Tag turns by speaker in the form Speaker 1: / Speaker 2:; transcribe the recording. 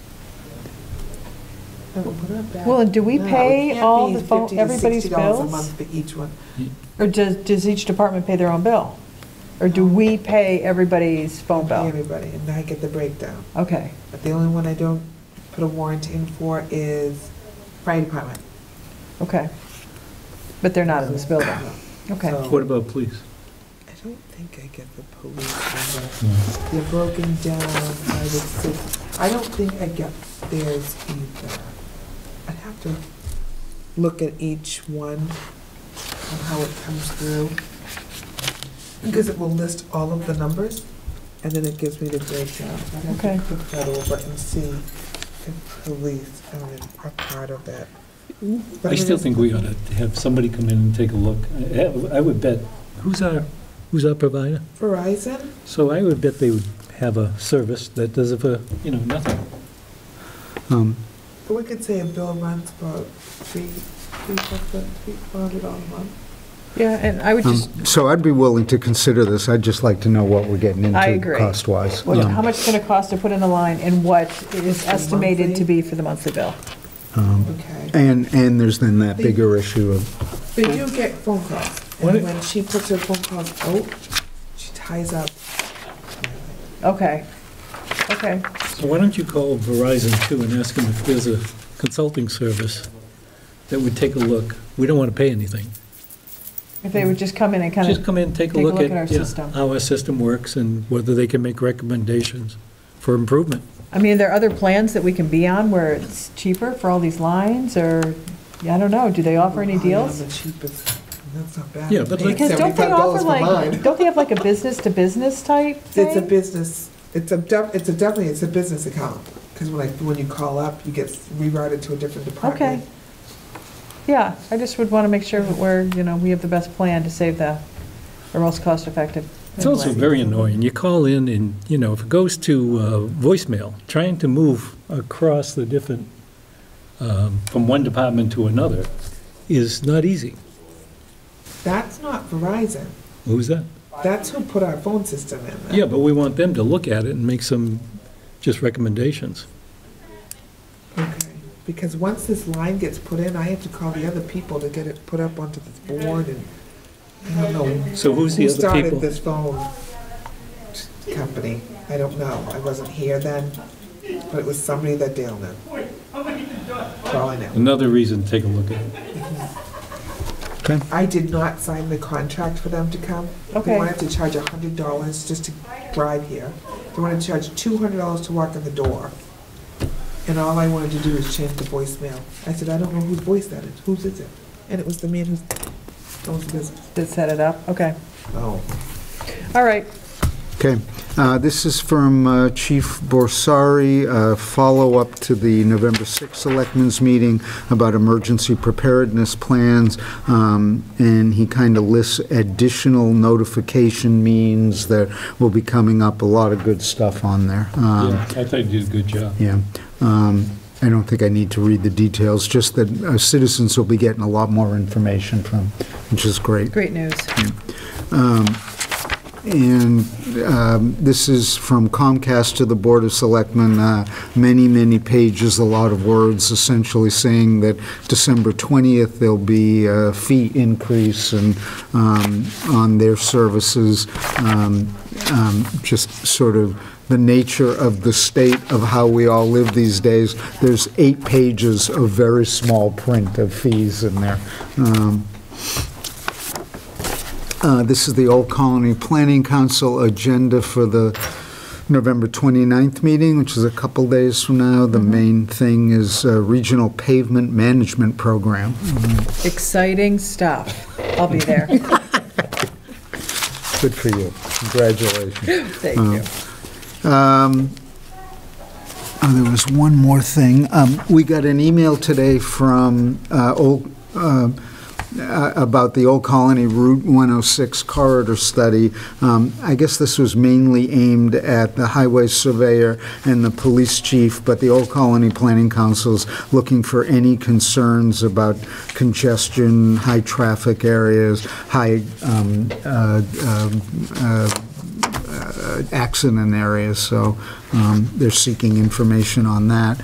Speaker 1: Well, do we pay all the phone- everybody's
Speaker 2: $50
Speaker 1: bills?
Speaker 2: a month for each one.
Speaker 1: Or does, does each department pay their own bill? Or do we pay everybody's phone bill?
Speaker 2: Everybody, and I get the breakdown.
Speaker 1: Okay,
Speaker 2: But the only one I don't put a warrant in for is fire department.
Speaker 1: okay. But they're not in this building, okay.
Speaker 2: So-
Speaker 3: What about police?
Speaker 2: I don't think I get the police number. They're broken down by the six. I don't think I get theirs either. I'd have to look at each one and how it comes through. Because it will list all of the numbers and then it gives me the breakdown. I'd
Speaker 1: Okay.
Speaker 2: have to click that over and see if police are in- are part of that. But
Speaker 3: I
Speaker 2: it
Speaker 3: still
Speaker 2: is-
Speaker 3: think we ought to have somebody come in and take a look. I- I would bet, who's our, who's our provider?
Speaker 2: Verizon,
Speaker 3: So I would bet they would have a service that does it for, you know, nothing. Um,
Speaker 2: but we could say a bill runs about three, three hundred, three hundred dollars a month.
Speaker 1: Yeah, and I would
Speaker 4: Um,
Speaker 1: just,
Speaker 4: So I'd be willing to consider this, I'd just like to know what we're getting
Speaker 1: I
Speaker 4: into
Speaker 1: agree.
Speaker 4: cost-wise.
Speaker 1: well,
Speaker 4: Um,
Speaker 1: how much it's gonna cost to put in a line and what is estimated to
Speaker 2: monthly?
Speaker 1: be for the monthly bill?
Speaker 4: um,
Speaker 2: Okay.
Speaker 4: And, and there's then that bigger issue of,
Speaker 2: They do get phone calls,
Speaker 3: What
Speaker 2: and
Speaker 3: it-
Speaker 2: when she puts her phone calls out, she ties up.
Speaker 1: Okay, okay.
Speaker 3: So why don't you call Verizon too and ask them if there's a consulting service that would take a look? We don't want to pay anything.
Speaker 1: If they would just come in and kind
Speaker 3: Just
Speaker 1: of,
Speaker 3: come in, take a look at
Speaker 1: our
Speaker 3: yeah,
Speaker 1: system.
Speaker 3: how our system works and whether they can make recommendations for improvement.
Speaker 1: I mean, are there other plans that we can be on where it's cheaper for all these lines or, I don't know, do they offer any
Speaker 2: Oh, yeah,
Speaker 1: deals?
Speaker 2: The cheapest, that's not bad.
Speaker 3: Yeah, but
Speaker 2: They
Speaker 3: like-
Speaker 1: Because don't they
Speaker 2: $75
Speaker 1: offer
Speaker 2: for
Speaker 1: like,
Speaker 2: mine.
Speaker 1: don't they have like a business-to-business type thing?
Speaker 2: It's a business, it's a, def- it's a definitely, it's a business account, because when like, when you call up, you get rerouted to a different department.
Speaker 1: Okay. Yeah, I just would want to make sure that we're, you know, we have the best plan to save the, the most cost-effective.
Speaker 3: It's also
Speaker 1: way.
Speaker 3: very annoying. You call in and, you know, if it goes to uh, voicemail, trying to move across the different, um, from one department to another is not easy.
Speaker 2: That's not Verizon,
Speaker 3: Who's that?
Speaker 2: that's who put our phone system in there.
Speaker 3: Yeah, but we want them to look at it and make some just recommendations.
Speaker 2: Okay, because once this line gets put in, I have to call the other people to get it put up onto this board, and I don't know
Speaker 3: So who's the
Speaker 2: Who
Speaker 3: other
Speaker 2: started
Speaker 3: people?
Speaker 2: this phone company? I don't know. I wasn't here then, but it was somebody that Dale knew. For all I know.
Speaker 3: Another reason to take a look at it.
Speaker 2: I did not sign the contract for them to come. They
Speaker 1: Okay.
Speaker 2: wanted to charge hundred dollars just to drive here. They wanted to charge two hundred dollars to walk in the door. And all I wanted to do was change the voicemail. I said, I don't know whose voice that is. Whose is it? And it was the man who owns the business.
Speaker 1: Did set it up, okay.
Speaker 2: Oh.
Speaker 1: All right,
Speaker 4: okay. Uh, This is from uh, Chief Borsari, uh, follow-up to the November 6th Selectmen's Meeting about emergency preparedness plans, um, and he kind of lists additional notification means that will be coming up, a lot of good stuff on there. Um,
Speaker 3: Yeah, I thought you did a good job.
Speaker 4: Yeah, um, I don't think I need to read the details, just that uh, citizens will be getting a lot more information from, which is great.
Speaker 1: great news.
Speaker 4: And um, this is from Comcast to the Board of Selectmen, uh, many, many pages, a lot of words, essentially saying that December 20th, there'll be a fee increase and, um, on their services, um, um, just sort of the nature of the state of how we all live these days. There's eight pages of very small print of fees in there. Um, uh, This is the Old Colony Planning Council agenda for the November 29th meeting, which is a couple days from now. The main thing is uh, Regional Pavement Management Program.
Speaker 1: Exciting stuff. I'll be there.
Speaker 4: Good for you. Congratulations.
Speaker 1: Thank you.
Speaker 4: Oh, There was one more thing. Um, We got an email today from uh, Old uh, about the Old Colony Route 106 corridor study. Um, I guess this was mainly aimed at the highway surveyor and the police chief, but the Old Colony Planning Council's looking for any concerns about congestion, high traffic areas, high um, uh, um, uh, uh, accident areas, so um, they're seeking information on that.